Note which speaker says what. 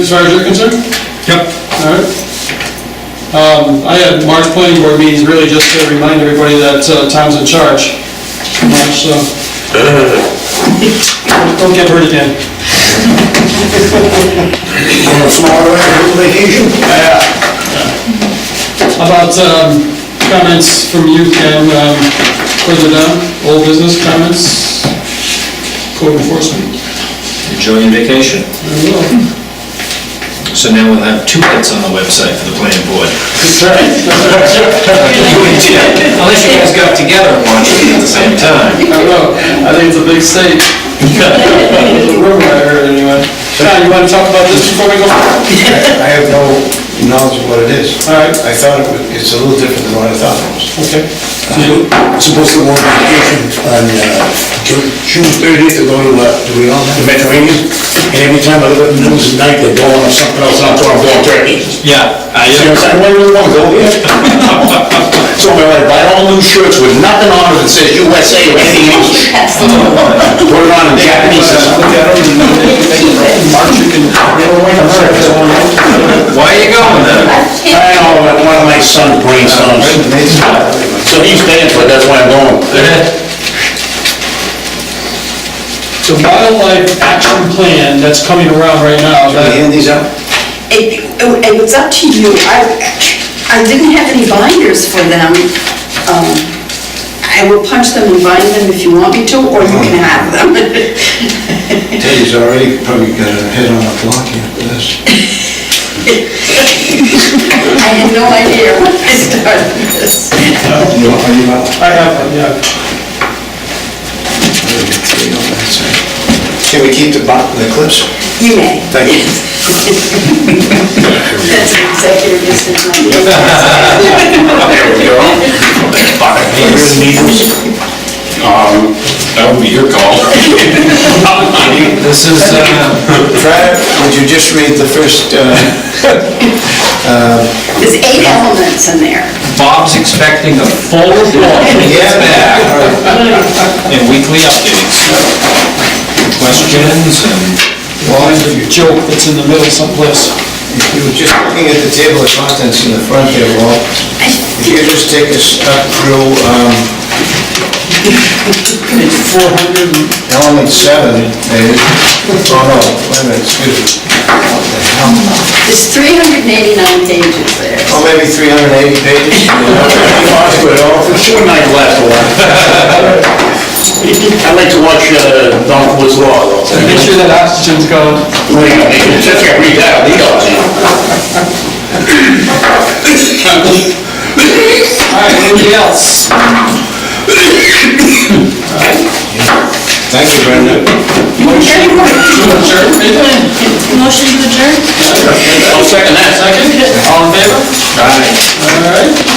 Speaker 1: As far as you're concerned,
Speaker 2: Yep.
Speaker 1: all right. Um, I had March planning board meetings really just to remind everybody that uh, Tom's in charge. March, so. Don't get hurt again.
Speaker 3: Tomorrow, I'm on vacation.
Speaker 1: About um, comments from you, Ken, um, further down, old business comments, code enforcement.
Speaker 4: Enjoy your vacation.
Speaker 1: Very well.
Speaker 4: So now we'll have two hits on the website for the planning board. Unless you guys got together and watched it at the same time.
Speaker 1: I don't know, I think it's a big state. It's a rumor I heard anyway. Tom, you want to talk about this before we go? All
Speaker 3: I have no knowledge of what it is.
Speaker 1: right,
Speaker 3: I thought it was, it's a little different than what I thought it was.
Speaker 1: okay.
Speaker 3: Supposed to go on vacation on uh, Ju- June thirtieth, to go to, uh, to we all the Mediterranean. And every time I look at the news at night, they're going on something else, and I'm going, I'm going Turkey.
Speaker 4: Yeah, I, uh,
Speaker 3: So I said, I really want to go here. So I had to buy all new shirts with nothing on it that says USA or anything else. Put it on in Japanese. or something.
Speaker 1: March, you can
Speaker 3: They were like, America's going on.
Speaker 4: why are you going there?
Speaker 3: I know, but one of my son's grandsons. uh, So he's paying for it, that's why I'm going.
Speaker 1: So wildlife action plan that's coming around right now, that,
Speaker 3: hand these out?
Speaker 5: It, it was up to you. I, I didn't have any binders for them. Um, I will punch them and bind them if you want me to, or you can have them.
Speaker 3: Teddy's already probably got a head on a block here for this.
Speaker 5: I had no idea when I started this.
Speaker 3: You know, are you out?
Speaker 1: I have, one, yeah.
Speaker 3: Three on that side. Can we keep the bot, the clips?
Speaker 5: You may.
Speaker 3: Thank you.
Speaker 5: That's an executive decision.
Speaker 6: There we go. Buccaneers. Um, That would be your call.
Speaker 4: This is, uh,
Speaker 3: Brad, would you just read the first, uh,
Speaker 5: There's eight elements in there.
Speaker 4: Bob's expecting a full report from his back and weekly updates. Questions and
Speaker 1: Mine's a joke that's in the middle someplace.
Speaker 3: if you were just looking at the table of contents in the front there, Walt, if you could just take us up through, um, element seven, maybe. Oh, no, wait a minute, excuse me. What the hell?
Speaker 5: There's 389 pages there.
Speaker 3: Oh, maybe 380 pages? Sure might last a while. I'd like to watch uh, Don Ford's Law, though.
Speaker 1: Make sure that oxygen's gone.
Speaker 3: Wait, I mean, Just can't read that, he does.
Speaker 1: All right, anybody else?
Speaker 3: Thank you, Brenda.
Speaker 1: Adjourn, maybe?
Speaker 7: Motion to adjourn?
Speaker 1: Second. All in favor? All right.